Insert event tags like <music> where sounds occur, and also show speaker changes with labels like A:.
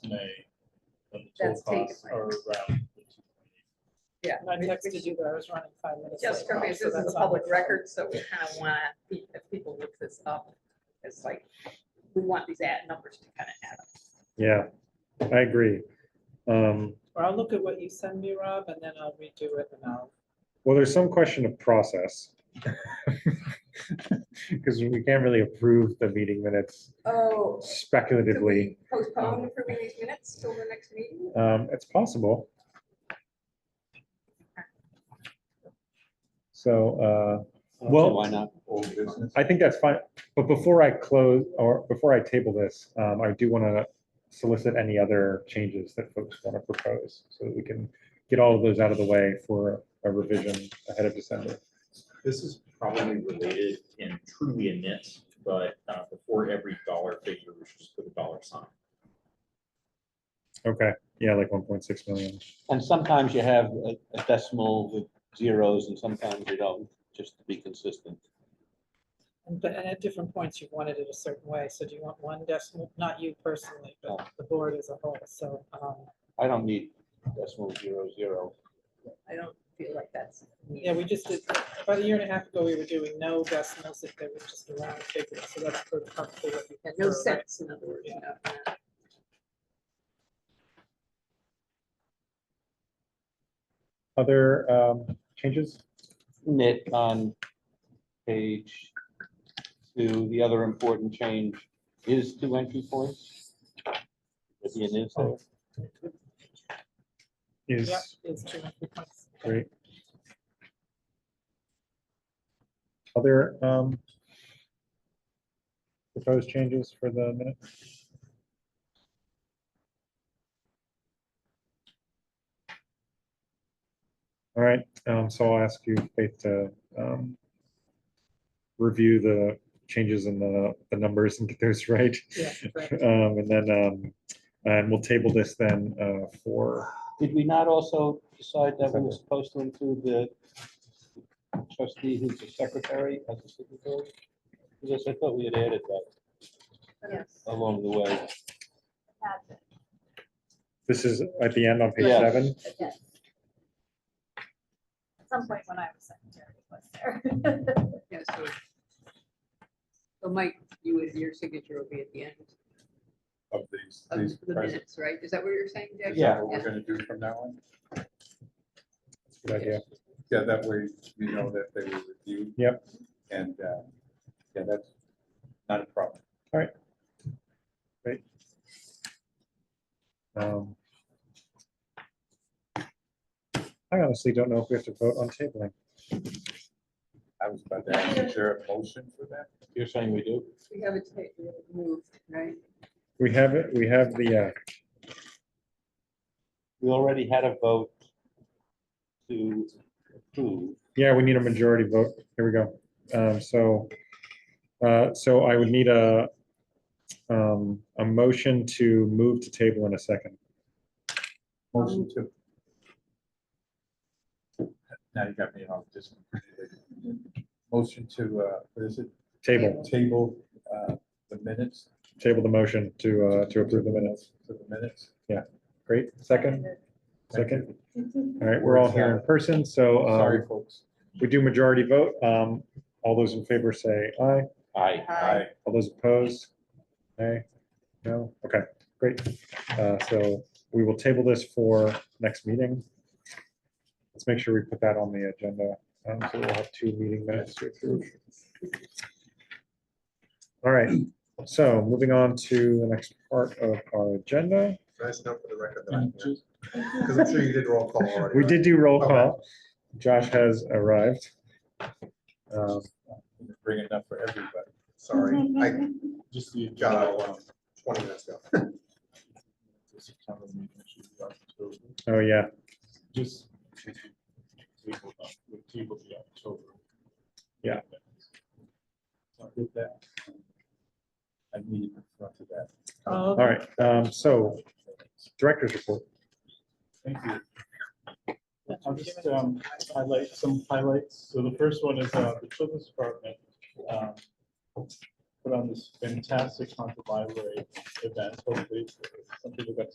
A: May. when the
B: That's taken,
A: total costs
B: right.
A: Are around.
B: Yeah.
C: And I texted you, but I was running five minutes.
B: Just
C: late,
B: because
C: so
B: this is
C: that's
B: a
C: on
B: public
C: the-
B: record, so we kind of want to, if people look this up, it's like, we want these ad numbers to kind of add up.
D: Yeah, I agree. Um,
C: Or I'll look at what you send me, Rob, and then I'll redo it and I'll.
D: Well, there's some question of process. <laughs> Because we can't really approve the meeting minutes
B: Oh,
D: speculatively.
B: postpone approving these minutes till the next meeting?
D: Um, It's possible. So uh, Well-
E: Why not?
A: Old business.
D: I think that's fine. But before I close or before I table this, um, I do want to solicit any other changes that folks want to propose so that we can get all of those out of the way for a revision ahead of December.
A: This is probably related and truly a nit, but uh, before every dollar figure, we should just put a dollar sign.
D: Okay, yeah, like 1.6 million.
E: And sometimes you have a a decimal with zeros and sometimes you don't, just to be consistent.
C: And but- and at different points, you've wanted it a certain way. So do you want one decimal, not you personally, but the board as a whole? So, um,
E: I don't need decimal zero zero.
B: I don't feel like that's.
C: yeah, we just did, about a year and a half ago, we were doing no decimals if they were just a round figure. So that's sort of probably what we
B: Yeah,
C: can
B: No
C: do, right?
B: sense, in other words, you know. uh, yeah.
D: Other um, changes?
E: Knit on page two, the other important change is two entry points. At the end is there.
C: Yeah,
D: Is
C: it's two hundred points.
D: Great. Other um, proposed changes for the minute? All right, um, so I'll ask you, Faith, to um, review the changes in the, the numbers and get those <laughs> right.
C: Yeah, correct.
D: Um, And then, um, and we'll table this then uh, for,
E: Did we not also decide that we were supposed to include the trustee who's the secretary as a signatory? Because I thought we had added that
B: Yes.
E: along the way.
D: this is at the end on page
E: Yeah.
D: seven?
F: Yes. At some point when I was secretary it was there.
B: Yeah, so. So Mike, you would, your signature will be at the end
A: Of these,
B: of
A: these.
B: the
A: present-
B: minutes, right? Is that what you're saying, Jack?
A: Is
E: Yeah.
A: that what we're gonna do from now on?
D: Good idea.
A: Yeah, that way we know that they were reviewed.
D: Yep.
A: And, uh, yeah, that's not a problem.
D: Um, I honestly don't know if we have to vote on tabling.
A: I was about to ask, is there a motion for that?
E: You're saying we do?
B: We have it ta- we have it moved, right?
D: We have it, we have the, uh,
E: We already had a vote to approve.
D: yeah, we need a majority vote. Here we go. Um, so, uh, so I would need a, um, a motion to move to table in a second.
A: Motion to. Now you got me off just. Motion to, uh, what is it?
D: Table,
A: Table, uh, the minutes,
D: table the motion to, uh, to approve the minutes.
A: to the minutes.
D: Great, second, second. All right, we're all here in person, so, uh,
A: Sorry, folks.
D: we do majority vote. Um, all those in favor say aye.
E: Aye.
A: Aye.
D: All those opposed? Nay? No? Okay, great. Uh, So we will table this for next meeting. Let's make sure we put that on the agenda. Um, So we'll have two meeting minutes to approve. All right, so moving on to the next part of our agenda.
G: Can I just note for the record that I'm
A: Mm,
G: here? Because I'm sure you did roll call already.
D: We
G: right?
D: did do roll call. Josh has arrived. Um,
A: Bring it up for everybody.
G: Sorry,
A: <laughs>
G: I
A: Just the.
G: got out um, twenty minutes ago.
D: Oh, yeah,
A: Just. Table the October.
D: Yeah.
A: I did that. I need to run to that.
C: All
D: all right. um, So director's report.
H: Thank you. I'll just um, highlight some highlights. So the first one is uh, the children's department. um, Put on this fantastic haunted library event, hopefully, some people got to